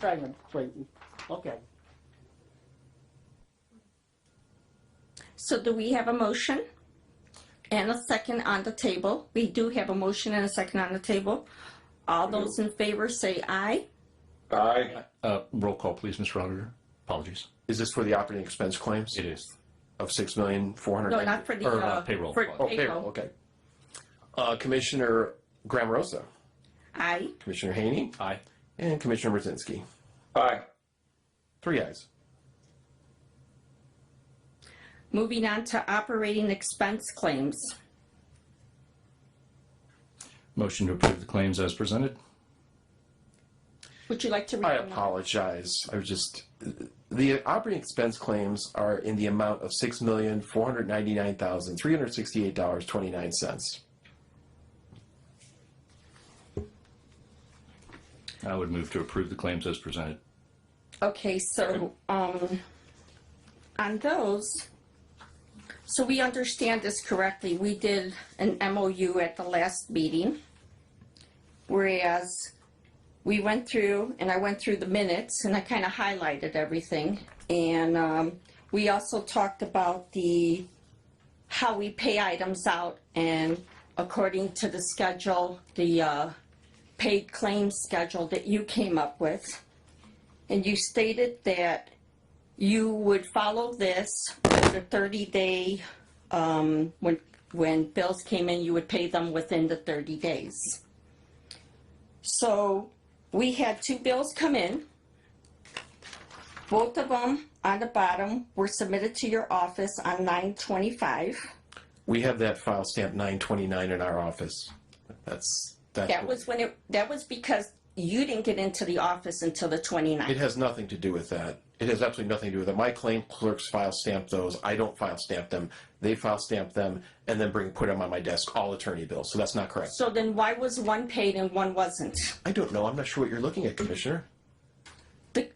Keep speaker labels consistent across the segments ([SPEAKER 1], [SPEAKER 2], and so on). [SPEAKER 1] trying to wait, look at.
[SPEAKER 2] So do we have a motion and a second on the table? We do have a motion and a second on the table. All those in favor say aye.
[SPEAKER 3] Aye.
[SPEAKER 4] Uh, Roll call, please, Mr. Auditor. Apologies.
[SPEAKER 3] Is this for the operating expense claims
[SPEAKER 4] It is.
[SPEAKER 3] of six million, four hundred?
[SPEAKER 2] No, not for the,
[SPEAKER 4] Or, uh,
[SPEAKER 2] uh,
[SPEAKER 4] payroll.
[SPEAKER 2] For
[SPEAKER 4] Oh,
[SPEAKER 3] Oh, payroll,
[SPEAKER 2] payroll.
[SPEAKER 3] okay. Uh, Commissioner Graham Rosa,
[SPEAKER 2] Aye.
[SPEAKER 3] Commissioner Haney,
[SPEAKER 4] Aye.
[SPEAKER 3] and Commissioner Brzezinski.
[SPEAKER 5] Aye.
[SPEAKER 3] Three ayes.
[SPEAKER 2] Moving on to operating expense claims.
[SPEAKER 4] Motion to approve the claims as presented.
[SPEAKER 2] Would you like to read?
[SPEAKER 3] I
[SPEAKER 2] them out?
[SPEAKER 3] apologize. I was just, the operating expense claims are in the amount of six million, four hundred ninety-nine thousand, three hundred sixty-eight dollars, twenty-nine cents.
[SPEAKER 4] I would move to approve the claims as presented.
[SPEAKER 2] Okay, so, um, on those, so we understand this correctly, we did an MOU at the last meeting. Whereas we went through, and I went through the minutes and I kind of highlighted everything. And, um, we also talked about the, how we pay items out and according to the schedule, the, uh, paid claim schedule that you came up with and you stated that you would follow this with the thirty day, um, when, when bills came in, you would pay them within the thirty days. So we had two bills come in. Both of them on the bottom were submitted to your office on nine twenty-five.
[SPEAKER 3] We have that file stamp nine twenty-nine in our office. That's, that's.
[SPEAKER 2] That was when it, that was because you didn't get into the office until the
[SPEAKER 3] It
[SPEAKER 2] 29th.
[SPEAKER 3] has nothing to do with that. It has absolutely nothing to do with that. My claim clerks file stamp those. I don't file stamp them. They file stamp them and then bring, put them on my desk, all attorney bills. So that's not correct.
[SPEAKER 2] So then why was one paid and one wasn't?
[SPEAKER 3] I don't know. I'm not sure what you're looking at, Commissioner.
[SPEAKER 2] the,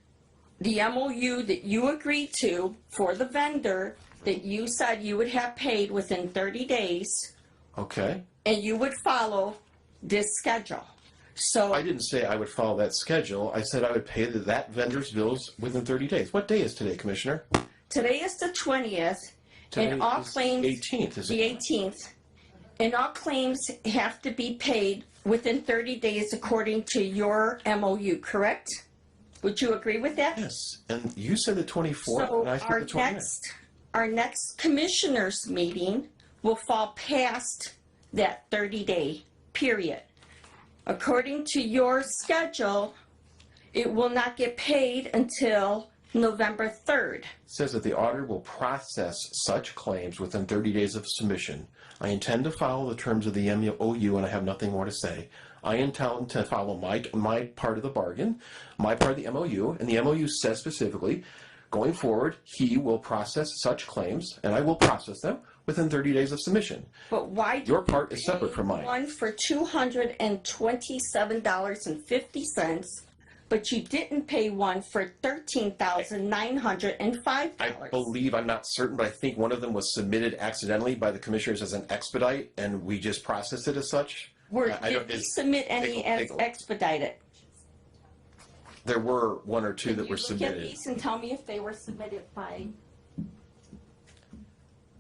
[SPEAKER 2] the MOU that you agreed to for the vendor that you said you would have paid within thirty days
[SPEAKER 3] Okay.
[SPEAKER 2] and you would follow this schedule. So,
[SPEAKER 3] I didn't say I would follow that schedule. I said I would pay the, that vendor's bills within 30 days. What day is today, Commissioner?
[SPEAKER 2] today is the twentieth
[SPEAKER 3] Today
[SPEAKER 2] and all
[SPEAKER 3] is
[SPEAKER 2] claims,
[SPEAKER 3] 18th, is
[SPEAKER 2] the
[SPEAKER 3] it?
[SPEAKER 2] eighteenth. And all claims have to be paid within thirty days according to your MOU, correct? Would you agree with that?
[SPEAKER 3] Yes. And you said the 24th,
[SPEAKER 2] So
[SPEAKER 3] and I
[SPEAKER 2] our
[SPEAKER 3] said the 29th.
[SPEAKER 2] next, our next commissioners meeting will fall past that thirty day period. According to your schedule, it will not get paid until November third.
[SPEAKER 3] says that the auditor will process such claims within 30 days of submission. I intend to follow the terms of the MOU and I have nothing more to say. I intend to follow my, my part of the bargain, my part of the MOU, and the MOU says specifically, going forward, he will process such claims and I will process them within 30 days of submission.
[SPEAKER 2] But why? do
[SPEAKER 3] Your
[SPEAKER 2] you
[SPEAKER 3] part is separate
[SPEAKER 2] pay
[SPEAKER 3] from mine.
[SPEAKER 2] One for two hundred and twenty-seven dollars and fifty cents, but you didn't pay one for thirteen thousand nine hundred and five
[SPEAKER 3] I
[SPEAKER 2] dollars.
[SPEAKER 3] believe, I'm not certain, but I think one of them was submitted accidentally by the commissioners as an expedite and we just processed it as such.
[SPEAKER 2] Were,
[SPEAKER 3] I- I don't-
[SPEAKER 2] did we
[SPEAKER 3] is-
[SPEAKER 2] submit any
[SPEAKER 3] pickle-
[SPEAKER 2] as
[SPEAKER 3] pickle.
[SPEAKER 2] expedited?
[SPEAKER 3] There were one or two that
[SPEAKER 2] You
[SPEAKER 3] were
[SPEAKER 2] Look at
[SPEAKER 3] submitted.
[SPEAKER 2] these and tell me if they were submitted by,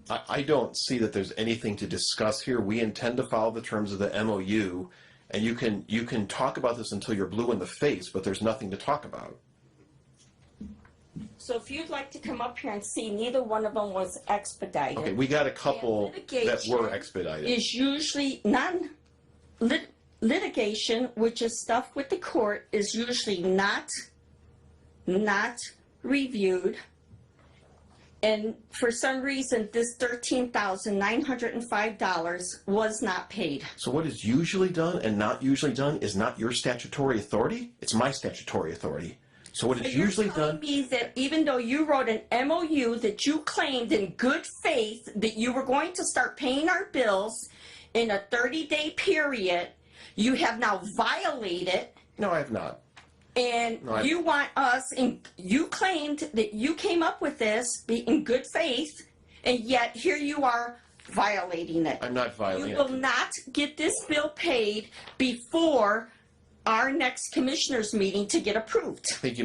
[SPEAKER 3] I, I don't see that there's anything to discuss here. We intend to follow the terms of the MOU, and you can, you can talk about this until you're blue in the face, but there's nothing to talk about.
[SPEAKER 2] so if you'd like to come up here and see, neither one of them was
[SPEAKER 3] Okay,
[SPEAKER 2] expedited.
[SPEAKER 3] we got a couple that were
[SPEAKER 2] Litigation
[SPEAKER 3] expedited.
[SPEAKER 2] Is usually non, lit, litigation, which is stuff with the court, is usually not, not reviewed. And for some reason, this thirteen thousand nine hundred and five dollars was not paid.
[SPEAKER 3] So what is usually done and not usually done is not your statutory authority, it's my statutory authority. So what is
[SPEAKER 2] You're
[SPEAKER 3] usually
[SPEAKER 2] telling
[SPEAKER 3] done,
[SPEAKER 2] me that even though you wrote an MOU that you claimed in good faith that you were going to start paying our bills in a 30-day period, you have now violated
[SPEAKER 3] no, I have not.
[SPEAKER 2] and
[SPEAKER 3] Right.
[SPEAKER 2] you want us, and you claimed that you came up with this be- in good faith, and yet here you are violating it.
[SPEAKER 3] I'm not
[SPEAKER 2] You
[SPEAKER 3] violating.
[SPEAKER 2] will not get this bill paid before our next commissioners meeting to get approved.
[SPEAKER 3] Thank you,